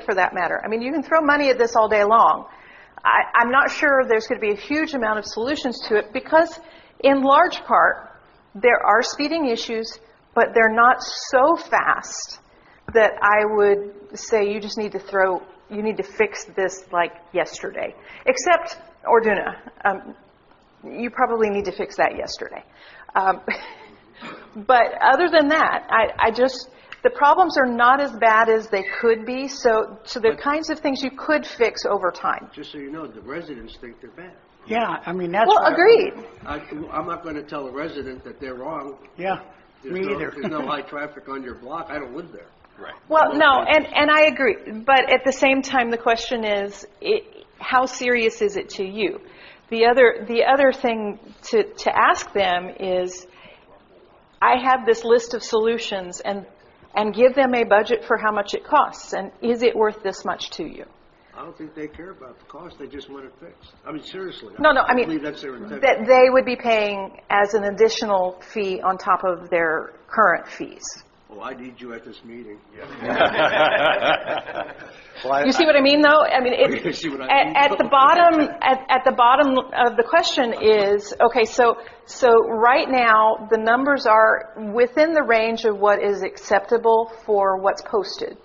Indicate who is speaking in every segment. Speaker 1: for that matter. I mean, you can throw money at this all day long. I, I'm not sure there's going to be a huge amount of solutions to it because, in large part, there are speeding issues, but they're not so fast that I would say you just need to throw, you need to fix this like yesterday. Except Orduna, um, you probably need to fix that yesterday. Um, but other than that, I, I just, the problems are not as bad as they could be, so, so they're kinds of things you could fix over time.
Speaker 2: Just so you know, the residents think they're bad.
Speaker 3: Yeah, I mean, that's.
Speaker 1: Well,
Speaker 3: what I-
Speaker 1: agreed.
Speaker 2: I, I'm not going to tell a resident that they're wrong.
Speaker 3: Yeah,
Speaker 2: There's
Speaker 3: me
Speaker 2: no-
Speaker 3: either.
Speaker 2: There's no high traffic on your block. I don't live there.
Speaker 1: Well, no, and, and I agree, but at the same time, the question is, i how serious is it to you? The other, the other thing to, to ask them is, I have this list of solutions, and, and give them a budget for how much it costs, and is it worth this much to you?
Speaker 2: I don't think they care about the cost. They just want it fixed. I mean, seriously.
Speaker 1: No, no, I mean,
Speaker 2: believe that's their intention.
Speaker 1: that they would be paying as an additional fee on top of their current fees.
Speaker 2: Oh, I need you at this meeting.
Speaker 1: You see what I mean, though? I mean,
Speaker 2: You
Speaker 1: it,
Speaker 2: see what I mean?
Speaker 1: at, at the bottom, at, at the bottom of the question is, okay, so, so right now, the numbers are within the range of what is acceptable for what's posted,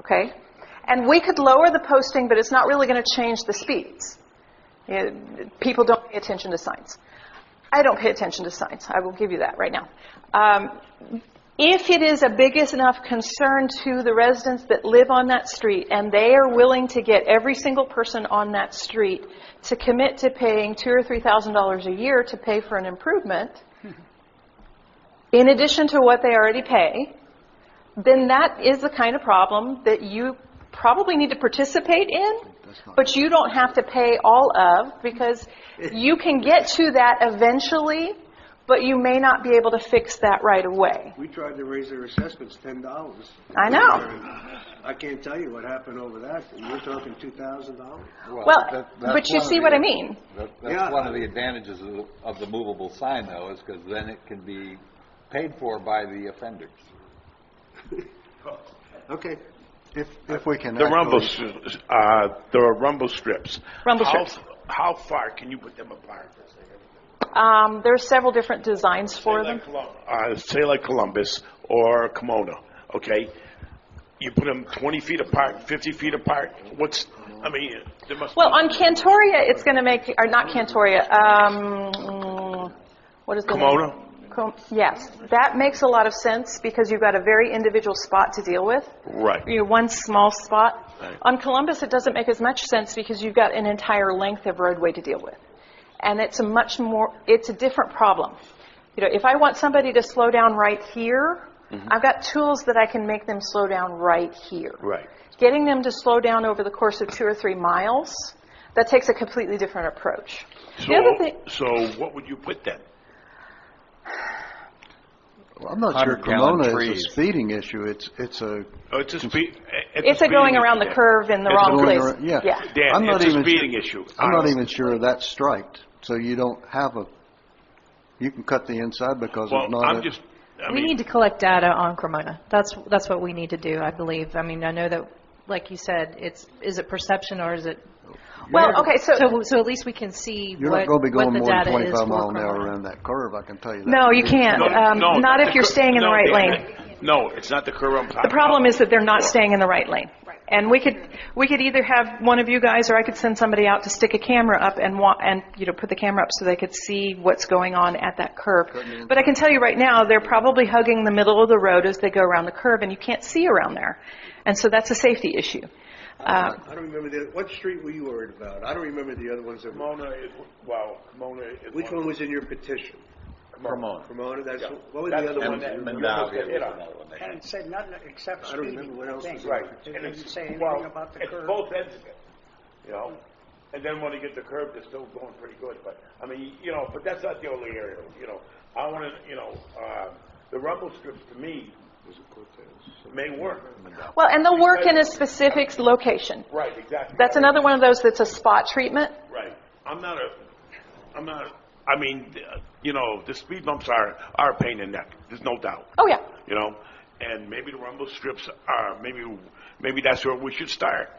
Speaker 1: okay? And we could lower the posting, but it's not really going to change the speeds. Yeah, People don't pay attention to signs. I don't pay attention to signs. I will give you that right now. Um, if it is a big enough concern to the residents that live on that street and they are willing to get every single person on that street to commit to paying two or three thousand dollars a year to pay for an improvement, in addition to what they already pay, then that is the kind of problem that you probably need to participate in, but you don't have to pay all of, because you can get to that eventually, but you may not be able to fix that right away.
Speaker 2: We tried to raise their assessments ten dollars.
Speaker 1: I know.
Speaker 2: I can't tell you what happened over that. You're talking two thousand dollars?
Speaker 1: Well,
Speaker 4: that- that's
Speaker 1: but you
Speaker 4: one of
Speaker 1: see
Speaker 4: the-
Speaker 1: what I mean?
Speaker 4: that-
Speaker 2: Yeah.
Speaker 4: That's one of the advantages of the- of the movable sign, though, is because then it can be paid for by the offenders.
Speaker 2: Okay.
Speaker 5: If, if we can.
Speaker 6: The
Speaker 5: actually-
Speaker 6: rumble, s- uh, there are rumble strips.
Speaker 1: Rumble
Speaker 6: How-
Speaker 1: strips.
Speaker 6: How far can you put them apart?
Speaker 1: Um, there are several different designs for
Speaker 6: Say
Speaker 1: them.
Speaker 6: like Colum- Uh, say like Columbus or Kimona, okay? You put them 20 feet apart, 50 feet apart, what's, I mean, there must be...
Speaker 1: Well, on Cantoria, it's going to make, or not Cantoria, um, mm, what is the name?
Speaker 6: Pomona?
Speaker 1: Com- Yes, that makes a lot of sense because you've got a very individual spot to deal with.
Speaker 6: Right.
Speaker 1: You know, one small spot.
Speaker 6: Right.
Speaker 1: On Columbus, it doesn't make as much sense because you've got an entire length of roadway to deal with. And it's a much more, it's a different problem. You know, if I want somebody to slow down right here,
Speaker 6: Mm-hmm.
Speaker 1: I've got tools that I can make them slow down right here.
Speaker 6: Right.
Speaker 1: Getting them to slow down over the course of two or three miles, that takes a completely different approach. The other
Speaker 6: So,
Speaker 1: thing,
Speaker 6: so what would you put then?
Speaker 5: Well, I'm not sure
Speaker 4: 100-gallon
Speaker 5: Cremona is
Speaker 4: trees.
Speaker 5: a speeding issue. It's, it's a.
Speaker 6: Oh, It's a speed...
Speaker 1: it's a going around the curve in the
Speaker 6: It's
Speaker 1: wrong
Speaker 5: going
Speaker 1: place.
Speaker 5: around- Yeah.
Speaker 1: Yeah.
Speaker 6: Dan,
Speaker 5: I'm not
Speaker 6: it's a
Speaker 5: even
Speaker 6: speeding
Speaker 5: sure-
Speaker 6: issue,
Speaker 5: I'm not
Speaker 6: honestly.
Speaker 5: even sure that's striped, so you don't have a, you can cut the inside because it's
Speaker 6: Well,
Speaker 5: not a.
Speaker 6: I'm just, I
Speaker 7: We need
Speaker 6: mean,
Speaker 7: to collect data on Cremona. That's, that's what we need to do, I believe. I mean, I know that, like you said, it's, is it perception or is it?
Speaker 1: Well, okay, so-
Speaker 7: So at least we can see
Speaker 5: You're
Speaker 7: what,
Speaker 5: not going to be
Speaker 7: what
Speaker 5: going
Speaker 7: the
Speaker 5: more than
Speaker 7: data is
Speaker 5: 25
Speaker 7: for
Speaker 5: mile an hour
Speaker 7: Cremona.
Speaker 5: around that curve, I can tell you that.
Speaker 1: No, you can't.
Speaker 6: no,
Speaker 1: Um,
Speaker 6: no,
Speaker 1: Not if
Speaker 6: the
Speaker 1: you're
Speaker 6: cur-
Speaker 1: staying in the
Speaker 6: no,
Speaker 1: right
Speaker 6: Dan,
Speaker 1: lane.
Speaker 6: No, it's not the curve I'm talking
Speaker 1: The problem
Speaker 6: about.
Speaker 1: is that they're not staying in the right lane. And we could, we could either have one of you guys, or I could send somebody out to stick a camera up and wa, and, you know, put the camera up so they could see what's going on at that curve. But I can tell you right now, they're probably hugging the middle of the road as they go around the curve, and you can't see around there. And so that's a safety issue. Uh,
Speaker 2: I don't remember the, what street were you worried about? I don't remember the other ones that were.
Speaker 6: Pomona is, wow, Pomona is...
Speaker 2: Which one was in your petition?
Speaker 4: Cremona.
Speaker 2: Cremona, that's,
Speaker 6: Yeah.
Speaker 2: what was the
Speaker 6: That's
Speaker 2: other
Speaker 6: the
Speaker 2: one?
Speaker 6: one
Speaker 2: that-
Speaker 4: Mondavi was another one. they had.
Speaker 3: And it said nothing except
Speaker 2: I don't
Speaker 3: speeding.
Speaker 2: remember what else
Speaker 3: thing.
Speaker 2: was in
Speaker 6: Right.
Speaker 2: It
Speaker 3: It
Speaker 6: And
Speaker 3: didn't
Speaker 6: it's-
Speaker 3: say
Speaker 6: well,
Speaker 3: anything about the
Speaker 6: it's
Speaker 3: curve.
Speaker 6: both ends of it, you know? And then when you get the curb, they're still going pretty good, but, I mean, you know, but that's not the only area, you know? I wanna, you know, uh, the rumble strips to me may work.
Speaker 1: Well, and they'll work in a specific location.
Speaker 6: Right, exactly.
Speaker 1: That's another one of those that's a spot treatment.
Speaker 6: Right. I'm not a, I'm not, I mean, uh, you know, the speed bumps are, are a pain in the neck, there's no doubt.
Speaker 1: Oh, yeah.
Speaker 6: you know, and maybe the rumble strips are, maybe, maybe that's where we should start.